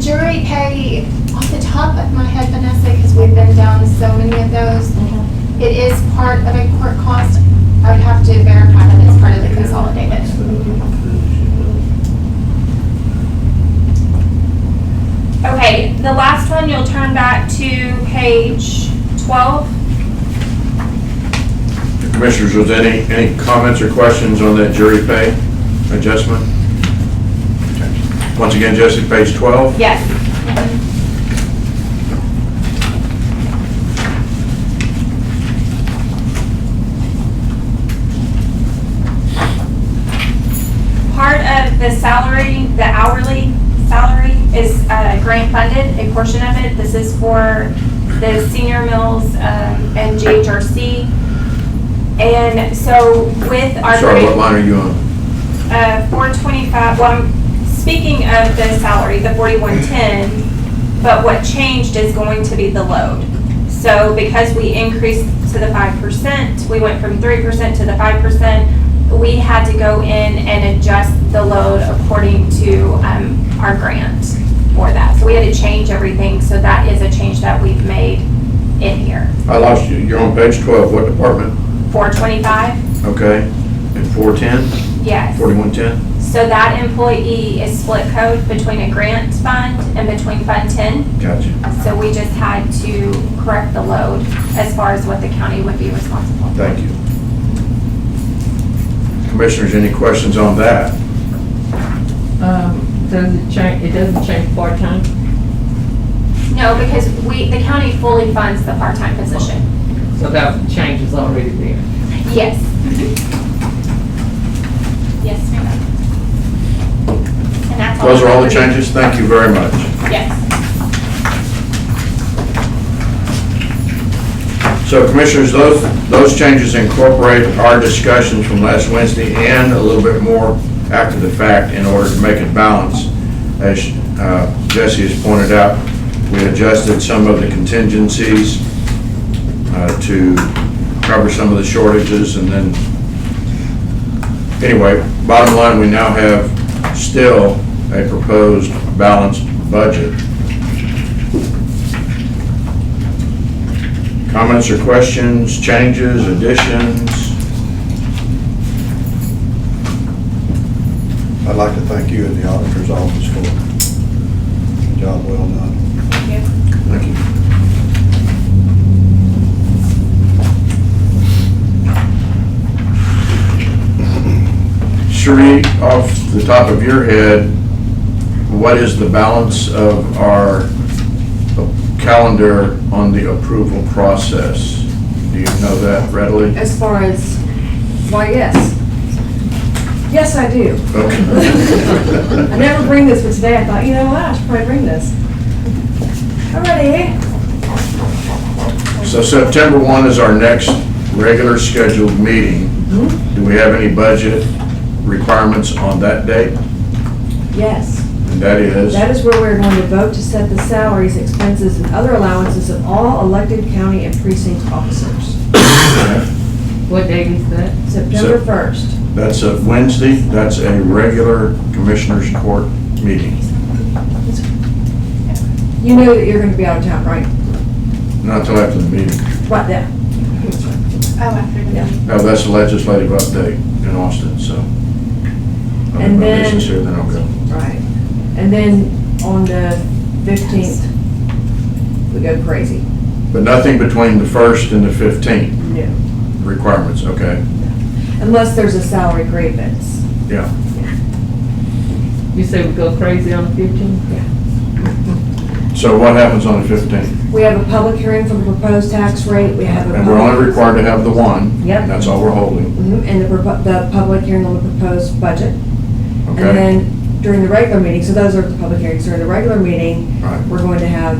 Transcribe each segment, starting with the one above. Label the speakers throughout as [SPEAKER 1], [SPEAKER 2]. [SPEAKER 1] jury pay, off the top of my head, Vanessa, because we've been down so many of those, it is part of a court cost. I would have to verify that it's part of the consolidated.
[SPEAKER 2] Okay, the last one, you'll turn back to page twelve.
[SPEAKER 3] Commissioners, was there any, any comments or questions on that jury pay adjustment? Okay. Once again, Jesse, page 12.
[SPEAKER 2] Yes. Part of the salary, the hourly salary is uh, grant funded, a portion of it. This is for the senior mills um, and GHRC. And so with our.
[SPEAKER 3] Sorry,
[SPEAKER 2] grant-
[SPEAKER 3] what line are you on?
[SPEAKER 2] uh, 425, well, I'm speaking of the salary, the 4110, but what changed is going to be the load. So because we increased to the 5%, we went from 3% to the 5%, we had to go in and adjust the load according to um, our grant for that. So we had to change everything, so that is a change that we've made in here.
[SPEAKER 3] I lost you, you're on page 12, what department?
[SPEAKER 2] 425,
[SPEAKER 3] Okay, and 410,
[SPEAKER 2] yes.
[SPEAKER 3] 4110?
[SPEAKER 2] So that employee is split code between a grant fund and between Fund 10.
[SPEAKER 3] Gotcha,
[SPEAKER 2] So we just had to correct the load as far as what the county would be responsible. for.
[SPEAKER 3] thank you. Commissioners, any questions on that?
[SPEAKER 4] Um, does it change, it doesn't change part-time?
[SPEAKER 2] No, because we, the county fully funds the part-time position.
[SPEAKER 4] So that change is already there.
[SPEAKER 2] Yes. Yes, ma'am. And that's all.
[SPEAKER 3] Those are all the
[SPEAKER 2] I have.
[SPEAKER 3] changes, thank you very much.
[SPEAKER 2] Yes.
[SPEAKER 3] So Commissioners, those, those changes incorporate our discussions from last Wednesday and a little bit more after the fact in order to make it balance. As uh, Jesse has pointed out, we adjusted some of the contingencies uh, to cover some of the shortages and then, anyway, bottom line, we now have still a proposed balanced budget. Comments or questions, changes, additions?
[SPEAKER 5] I'd like to thank you and the auditor's office for a job well done.
[SPEAKER 2] Thank you.
[SPEAKER 3] Thank you. Sheree, off the top of your head, what is the balance of our calendar on the approval process? Do you know that readily?
[SPEAKER 6] As far as, why, yes. Yes, I do. I
[SPEAKER 3] Okay.
[SPEAKER 6] never bring this, but today I thought, you know what, I should probably bring this. Alrighty.
[SPEAKER 3] So September 1 is our next regular scheduled meeting.
[SPEAKER 6] Mm-hmm.
[SPEAKER 3] Do we have any budget requirements on that date?
[SPEAKER 6] Yes,
[SPEAKER 3] And that is?
[SPEAKER 6] that is where we're going to vote to set the salaries, expenses, and other allowances of all elected county and precinct officers.
[SPEAKER 4] What date is that?
[SPEAKER 6] September
[SPEAKER 3] So-
[SPEAKER 6] 1st.
[SPEAKER 3] That's a Wednesday, that's a regular Commissioners Court meeting.
[SPEAKER 6] You know that you're gonna be out of town, right?
[SPEAKER 3] Not until after the meeting.
[SPEAKER 6] What then?
[SPEAKER 1] Oh, after the.
[SPEAKER 6] Yeah.
[SPEAKER 3] No, that's a legislative update in Austin, so. I'll
[SPEAKER 6] And
[SPEAKER 3] have my
[SPEAKER 6] then-
[SPEAKER 3] business here, Then I'll go.
[SPEAKER 6] Right. And then on the 15th, we go crazy.
[SPEAKER 3] But nothing between the first and the fifteenth
[SPEAKER 6] No.
[SPEAKER 3] requirements, okay?
[SPEAKER 6] Unless there's a salary grievance.
[SPEAKER 3] Yeah.
[SPEAKER 4] You say we go crazy on the fifteenth?
[SPEAKER 3] So what happens on the fifteenth?
[SPEAKER 6] We have a public hearing for the proposed tax rate, we have a.
[SPEAKER 3] And we're only required to have the one.
[SPEAKER 6] Yep.
[SPEAKER 3] That's all we're holding,
[SPEAKER 6] Mhm, And the, propo- the public hearing on the proposed budget. And
[SPEAKER 3] okay?
[SPEAKER 6] then during the regular meeting, so those are the public hearings, during the regular meeting,
[SPEAKER 3] All right.
[SPEAKER 6] we're going to have,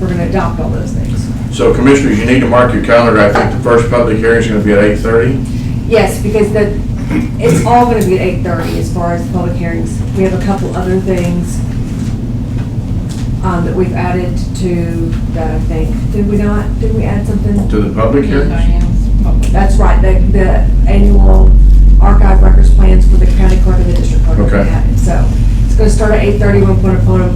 [SPEAKER 6] we're gonna adopt all those things.
[SPEAKER 3] So Commissioners, you need to mark your calendar. I think the first public hearing is gonna be at eight-thirty.
[SPEAKER 6] Yes, because the, it's all gonna be at eight thirty as far as the public hearings. We have a couple other things, um, that we've added to that, I think. Did we not, did we add something?
[SPEAKER 3] To the public hearings?
[SPEAKER 6] That's right, the, the annual archive records plans for the county clerk and the district clerk.
[SPEAKER 3] Okay.
[SPEAKER 6] So, it's gonna start at eight thirty, oh we'll put a phone